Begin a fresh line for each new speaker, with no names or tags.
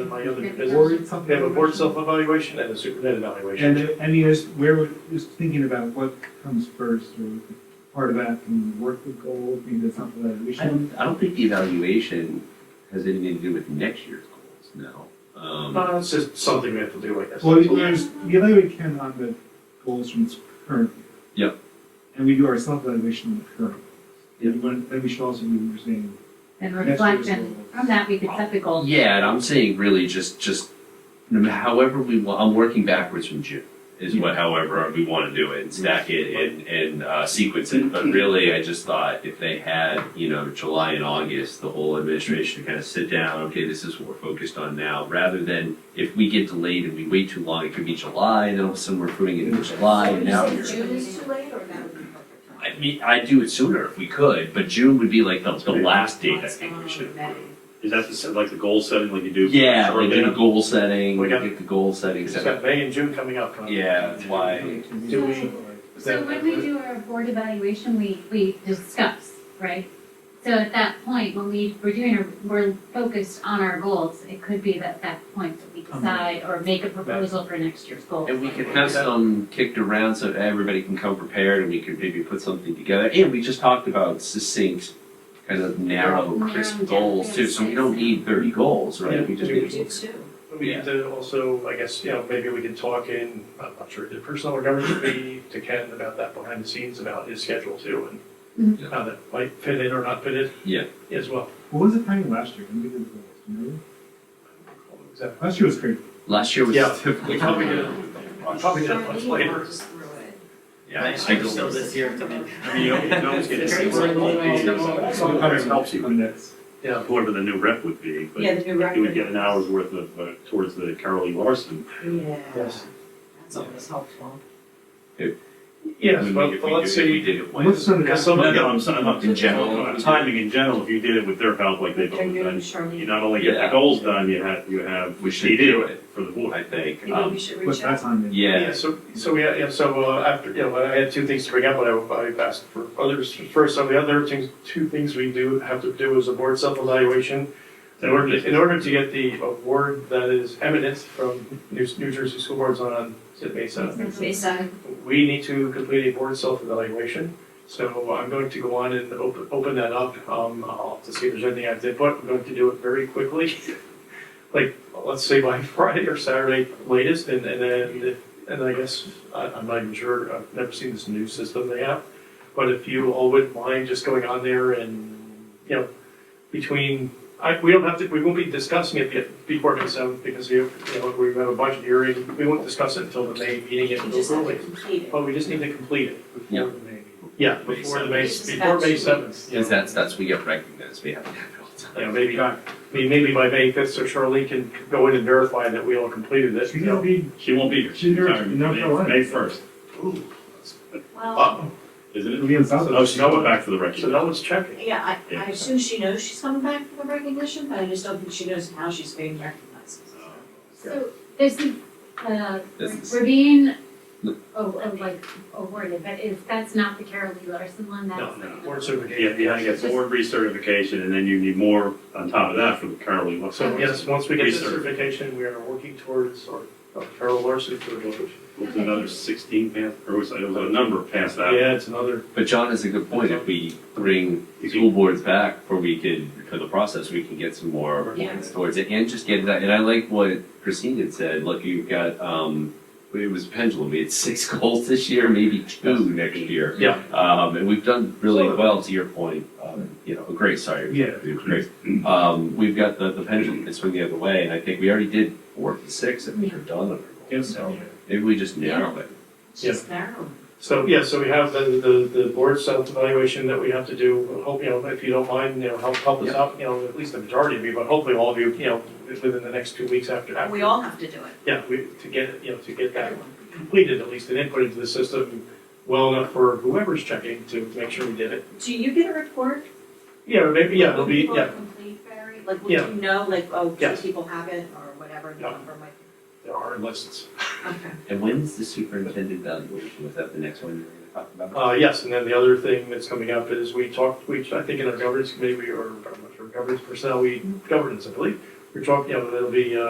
any other
Maybe
business.
that's
We have a board
something-
self-evaluation and a superintendent
And,
evaluation.
and yes, we're just thinking about what comes first, or part of that, and work with goals, maybe that's something that we
I
should.
don't, I don't think the evaluation has anything to do with next year's goals, no. Um,
Uh, it's just something we have to do, I guess.
Well, there's, the other we can on the goals from this current. year.
Yep.
And we do our self-evaluation on the current. And when- then we should also be saying.
And
next
reflect,
year's
and
goals.
from that, we can set the goals.
yeah, and I'm saying really just, just, no matter- however we want, I'm working backwards from June. Is what, however, we want to do it and stack it and, and, uh, sequence it. But really, I just thought if they had, you know, July and August, the whole administration to kind of sit down, okay, this is what we're focused on now, rather than if we get delayed and we wait too long, it could be July, then all of a sudden we're putting it in July and now
Would
you're.
you say June is too late, or that would be perfect time?
I mean, I'd do it sooner if we could, but June would be like the, the last date I think we should.
Is that the, se- like the goal setting like you do? for
Yeah,
short
like do the
meeting?
goal setting,
We got-
get the goal setting
It's
set
got May and June coming up. huh?
Yeah, that's why,
Do we?
So when we do our board evaluation, we, we discuss, right? So at that point, when we, we're doing, our- we're focused on our goals, it could be that, that point that we decide or make a proposal for next year's goals.
Um, and we could have some kicked around so everybody can come prepared and we could maybe put something together. And we just talked about succinct, kind of narrow,
Narrow
crisp
down,
goals too, so we don't need thirty goals, right? We just
We do
need.
too.
We need to also, I guess, you know, maybe we could talk in, I'm not sure, did personnel or governance be to Ken about that behind the scenes about his schedule too and
Mm-hmm.
Mhm.
how that might fit in or not fit in?
Yeah.
As well.
What was the timing last year? When we did the goals, do you remember?
Is that-
Last year was crazy.
Last year was.
Yeah,
difficult.
we probably did, we probably did it much
Sorry, you
later.
walked us through it.
Yeah, I- I
Actually, so
don't-
this year, come in.
I mean, you don't, you don't get
Very
to see
Some of it helps
you. Next.
Yeah.
whoever the new rep would be,
Yeah,
but
the new record.
you would get an hour's worth of, uh, towards the Carolee Larson.
Yeah,
Yes.
that's always helpful.
Yes,
we-
but
if
but
we
let's
do it,
see.
We did it
What's
once.
some of
Because
the,
some
No,
of
no,
them,
I'm, so- I'm not
In
in
general.
general, timing in general, if you did it with their help like they've
They're
always
new to
done,
Charlene.
you not only get the
Yeah.
goals done, you have, you have.
We should
you
do it,
For the board.
I think.
Maybe
Um,
we should
what's
reach
that
out.
time?
yeah,
yeah, so, so we, yeah, so uh, after, you know, I had two things to bring up, but I, I asked for others first. So the other things, two things we do have to do is a board self-evaluation. In order, to- in order to get the award that is eminent from New New Jersey School Boards on, is it May seventh?
Based on
we need to complete a board self-evaluation. So I'm going to go on and open, open that up, um, I'll have to see if there's anything I did, but I'm going to do it very quickly. Like, let's say by Friday or Saturday latest, and, and then, and I guess, I, I'm not even sure, I've never seen this new system they have. But if you all wouldn't mind just going on there and, you know, between, I, we don't have to, we won't be discussing it yet before May seventh, because you, you know, we have a budget hearing, we won't discuss it until the May meeting,
You
it'll
just have
go
to
late.
complete it.
Oh.
Well, we just need to complete it.
Yeah.
Before the May meeting.
Yeah, before the May,
This is
before
about
May
two
seventh.
weeks.
because that's, that's, we get recognized, we have to have it all the time.
Yeah, maybe, I mean, maybe by May fifth, so Charlene can go in and verify that we all completed it.
Should we be
She won't be here.
She's here
Sorry,
in North
May-
Carolina.
May first,
Ooh,
Well,
uh-oh.
isn't it?
It'll be in South.
Oh, she's going back for the
So
record.
no one's checking.
yeah, I, I
Oh. Yeah.
assume she knows she's coming back for the recognition, but I just don't think she knows how she's being recognized.
Oh.
So this is, uh,
This is-
we're being,
No.
oh, oh, like awarded, but is, that's not the Carolee Larson one,
No,
that's.
no, board
Yeah,
certification.
you gotta get board recertification, and then you need more on top of that for the Carolee Larson.
So yes, once we get this
Research.
certification, we are working towards, or uh, Carol Larson for the village.
It was another sixteen past, or it was, it was a number past that.
Yeah, it's another,
But John has a good point. If we bring school boards back for we could, for the process, we can get some more
Yeah.
points towards it and just get that. And I like what Christine had said, look, you've got, um, it was pendulum. We had six goals this year, maybe two next year.
Yeah.
Um, and we've done really
Sure.
well, to your point, um, you know, great, sorry.
Yeah.
Great. Um, we've got the, the pendulum can swing the other way and I think we already did four to six and we're done on our goals. So maybe we just narrow it.
It's just narrow.
so, yeah, so we have the, the, the board self-evaluation that we have to do. Hope, you know, if you don't mind, you know, help, help us
Yeah.
out, you know, at least the majority of you, but hopefully all of you, you know, within the next two weeks after, after.
We all have to do it,
Yeah, we, to get, you know, to get that
everyone.
completed, at least an input into the system well enough for whoever's checking to make sure we did it.
Do you get a report?
Yeah, or maybe, yeah, it'll
When
be,
people
yeah,
Complete, Barry, like, would
Yeah.
you know, like, oh, two
Yes.
people have it, or whatever the
Yeah.
number might be?
there are lists.
Okay.
And when's the superintendent evaluation? Was that the next one you were gonna talk about?
Uh, yes, and then the other thing that's coming up is we talked, we, I think in our governance committee, we, or, I'm not sure, governance personnel, we, governance, I believe, we're talking, you know, there'll be, uh,